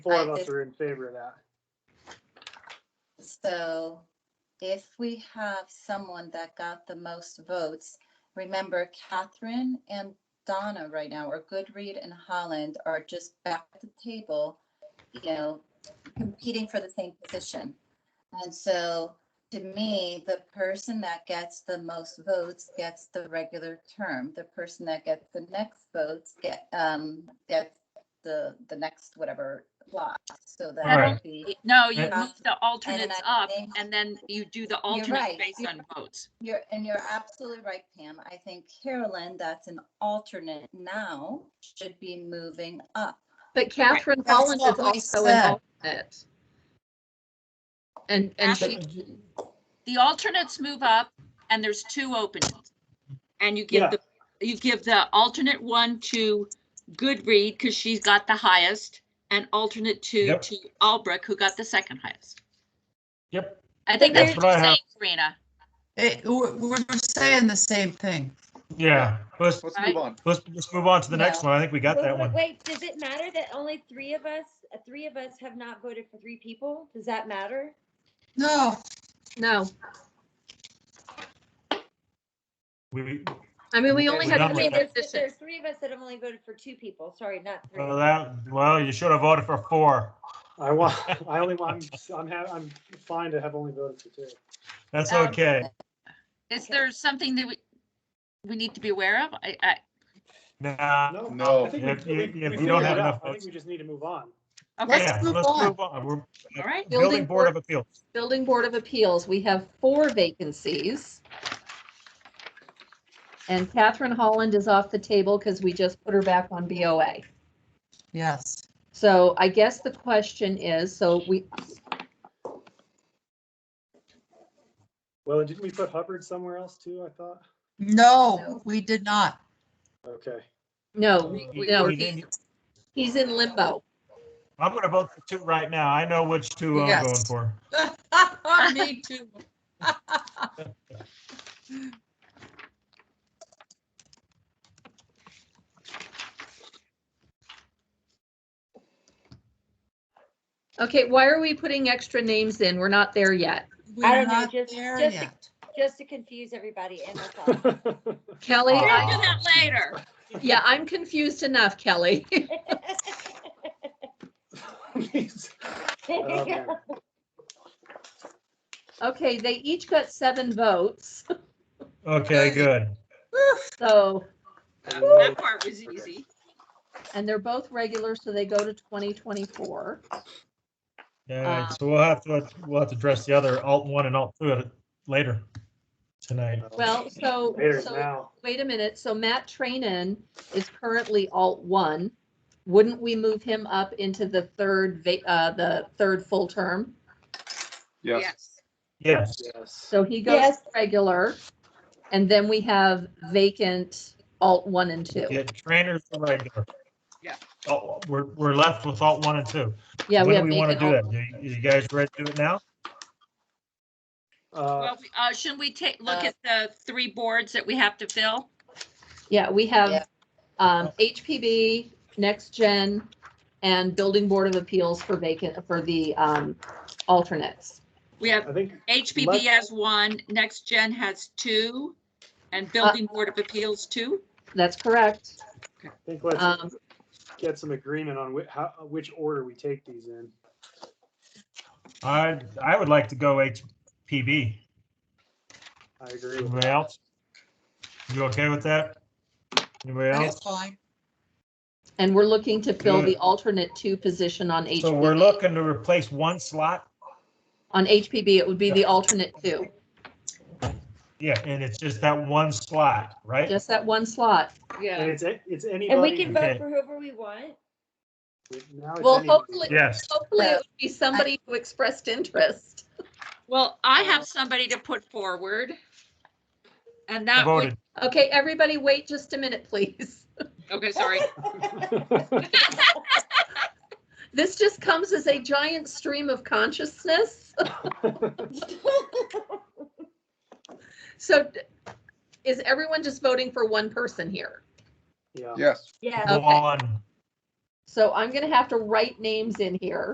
Four of Aye. us are in favor of that. So if we have someone that got the most votes, remember Catherine and Donna right now, or Goodread and Holland are just back at the table, you know, competing for the same position. And so to me, the person that gets the most votes gets the regular term. The person that gets the next votes get, um, gets the, the next whatever lot. So that would Alright. be. No, you Yeah. move the alternates I up think- and then you do the alternates right. based on votes. You're, and you're absolutely right, Pam. I think Carolyn, that's an alternate now, should be moving up. But Catherine That's Holland what is we also said. an alternate. And, and she, The alternates move up and there's two openings. And you give Yeah. the, you give the alternate one to Goodread because she's got the highest and alternate two Yep. to Albrecht, who got the second highest. Yep. I think That's that's what what I you're have. saying, Karina. It, we're, Eh, we're saying the same thing. Yeah. Let's, Let's Right. move on. let's, let's move on to the next No. one. I think we got Wait, that wait, one. Wait, does it matter that only three of us, uh, three of us have not voted for three people? Does that matter? No, no, We, I mean, we only We're had done I three mean, with there's, positions. there's three of us that have only voted for two people. Sorry, not three. well, that, well, you should have voted for four. I want, I only, want- I'm, I'm, ha- I'm fine to have only voted for two. That's Um, okay. Is Okay. there something that we, we need to be aware of? I, I, Nah. No, No. I think we- If you- we- if we you figured don't it have out. enough I think votes. we just need to move on. okay, Yeah, move let's on. move on. We're all right. Building Board of Appeals. Building Board of Appeals, we have four vacancies. And Catherine Holland is off the table because we just put her back on BOA. yes. So I guess the question is, so we, Well, didn't we put Hubbard somewhere else too, I thought? No, we did not. Okay. no, We- no, we he's, need- he's in limbo. I'm gonna vote for two right now. I know which two I'm Yes. going for. Me too. Okay, why are we putting extra names in? We're not there yet. I We're don't know, not just- there just- yet. Just to confuse everybody and us all. All Oh. Kelly, We'll I- do that later. yeah, I'm confused enough, Kelly. man. Okay, they each got seven votes, Okay, good. so, That part was easy. and they're both regular, so they go to 2024. All right, so we'll have to, we'll have to address the other alt one and alt two later Uh, tonight. Well, so, Later so now. wait a minute, so Matt Trainin is currently alt one. Wouldn't we move him up into the third, va- uh, the third full term? Yes. Yes. Yes. So he goes Yes. regular, and then we have vacant alt one and Yeah, two. trainers are regular. Yeah. Oh, we're, we're left with alt one and two. Yeah, we When do have we want to vacant do alt. that? You- You guys ready to do it now? Uh, Well, we- uh, shouldn't we take, look at the three boards that we have to fill? Yeah, we Yeah. have um, HPB, Next Gen, and Building Board of Appeals for vacant, for the um, alternates. We have I think, HPP has one, Next Gen has two, and Building Board of Appeals two. That's correct. I think let's Um, get some agreement on whi- how, which order we take these in. I, I would like to go HPB. I agree with Anybody that. else? You okay with that? Anybody else? That's fine. And we're looking to fill the Good. alternate two position on So we're HPB. looking to replace one slot. On HPB, it would be the alternate two, Yeah, and it's just that one slot, right? just that one slot. And it's, a- it's anybody. And we can Okay. vote for whoever we want. now it's Well, anybody. hopefully- Yes. Hopefully, it would be somebody who expressed interest. Well, I have somebody to put forward. And I that would, Voted. Okay, everybody, wait just a minute, please. okay, sorry. This just comes as a giant stream of consciousness. So d- is everyone just voting for one person here? Yeah. Yes. Yeah, Okay. One. So I'm going to have to write names in here.